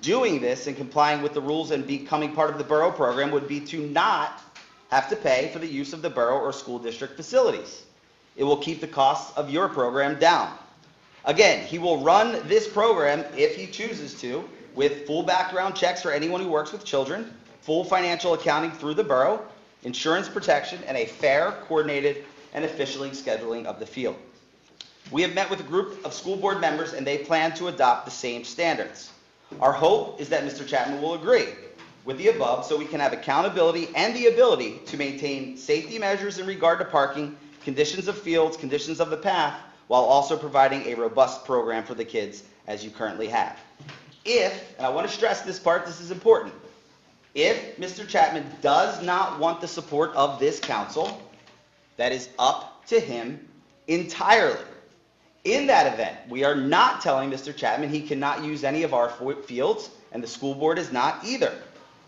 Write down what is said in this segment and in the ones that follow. doing this and complying with the rules and becoming part of the borough program would be to not have to pay for the use of the borough or school district facilities. It will keep the costs of your program down. Again, he will run this program if he chooses to with full background checks for anyone who works with children, full financial accounting through the borough, insurance protection, and a fair, coordinated, and officially scheduling of the field. We have met with a group of school board members, and they plan to adopt the same standards. Our hope is that Mr. Chapman will agree with the above, so we can have accountability and the ability to maintain safety measures in regard to parking, conditions of fields, conditions of the path, while also providing a robust program for the kids as you currently have. If, and I want to stress this part, this is important, if Mr. Chapman does not want the support of this council, that is up to him entirely. In that event, we are not telling Mr. Chapman he cannot use any of our fo- fields, and the school board is not either.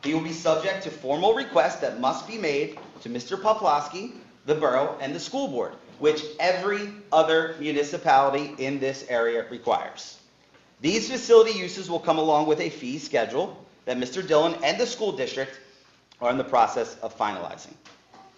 He will be subject to formal requests that must be made to Mr. Poplawski, the borough, and the school board, which every other municipality in this area requires. These facility uses will come along with a fee schedule that Mr. Dillon and the school district are in the process of finalizing.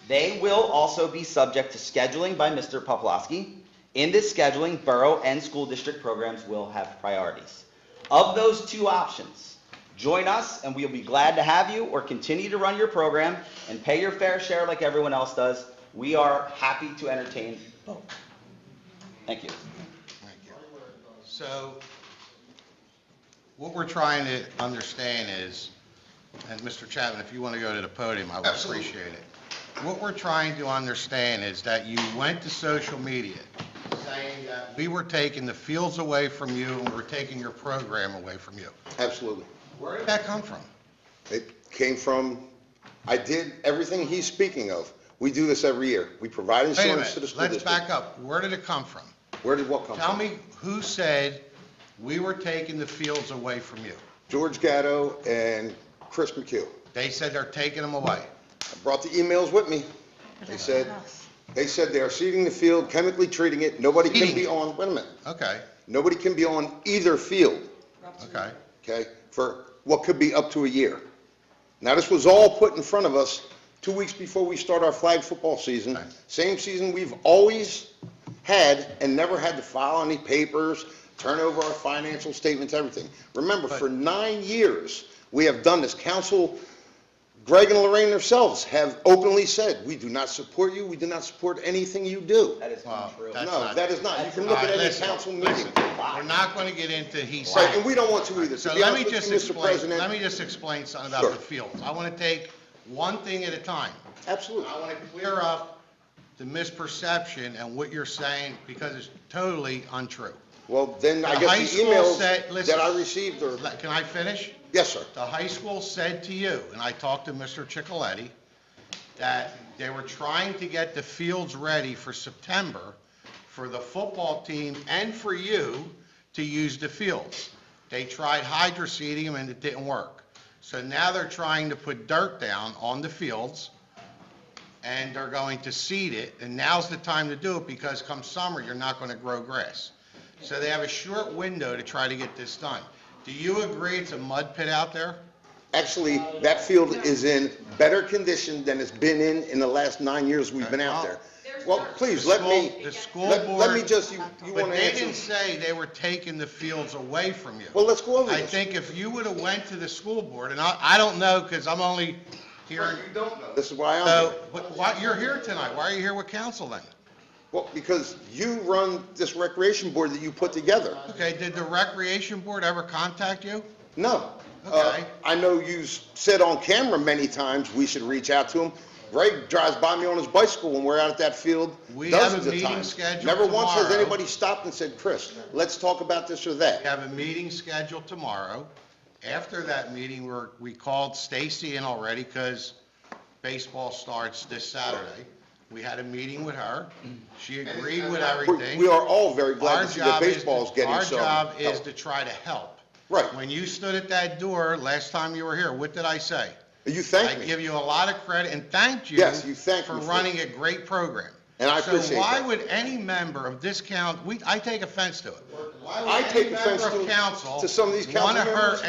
They will also be subject to scheduling by Mr. Poplawski. In this scheduling, borough and school district programs will have priorities. Of those two options, join us and we'll be glad to have you or continue to run your program and pay your fair share like everyone else does. We are happy to entertain both. Thank you. Thank you. So, what we're trying to understand is, and Mr. Chapman, if you want to go to the podium, I would appreciate it. What we're trying to understand is that you went to social media saying that we were taking the fields away from you and we're taking your program away from you. Absolutely. Where did that come from? It came from, I did everything he's speaking of. We do this every year. We provide Wait a insurance to the minute, school let's back district. up. Where did it come from? Where did what come from? Tell me who said we were taking the fields away from you? George Gatto and Chris McHugh. They said they're taking them away. I brought the emails with me. They said, they said they are seeding the field, chemically treating it. Nobody can Seeding be it. on, wait a minute, Okay, nobody can be on either field, okay. okay, for what could be up to a year. Now, this was all put in front of us two weeks before we start our flag football season. Right. Same season we've always had and never had to file any papers, turn over our financial statements, everything. Remember, for nine years, we have done this. Council, Greg and Lorraine themselves have openly said, we do not support you, we do not support anything you do. That is Wow, untrue. that's No, not- that is not. You can All look right, at any listen, council listen. meeting. We're not going to get into he Right, said. and we don't want to either. To So be let honest me with you, just Mr. explain, President. let me just explain something about Sure. the fields. I want to take one thing at a time. Absolutely. I want to clear up the misperception and what you're saying because it's totally untrue. Well, then I The high guess the school emails said- listen. that I received are, Let- Can I finish? yes, sir. The high school said to you, and I talked to Mr. Chicoletti, that they were trying to get the fields ready for September for the football team and for you to use the fields. They tried hydroseeding them and it didn't work. So now they're trying to put dirt down on the fields and they're going to seed it. And now's the time to do it because come summer, you're not going to grow grass. So they have a short window to try to get this done. Do you agree it's a mud pit out there? Actually, that field is in better condition than it's been in in the last nine years we've been out there. Well, please, let me, The school let let me board- just, you you But want to they didn't answer? say they were taking the fields away from you. Well, let's go over I this. think if you would've went to the school board, and I, I don't know, because I'm only here, don't know. This is why I'm so, here. but why, you're here tonight, why are you here with council then? Well, because you run this recreation board that you put together. Okay, did the recreation board ever contact you? No. Uh, Okay. I know you said on camera many times we should reach out to him. Greg drives by me on his bicycle when we're out at that field We have a dozens of meeting times. scheduled Never once has tomorrow. anybody stopped and said, Chris, let's talk about this or that. We have a meeting scheduled tomorrow. After that meeting, we're, we called Stacy in already because baseball starts this Saturday. We had a meeting with her. She agreed with We everything. we are all very Our glad to see that job is, baseball's getting our some. job is help. to try to help. Right. When you stood at that door last time you were here, what did I say? You I thank me. give you a lot of credit and thanked you. Yes, you thanked me For for running a great program. And I So appreciate why that. would any member of this council, we, I take offense to it. Why would I any take offense member of to- council to some of these council wanna hurt members.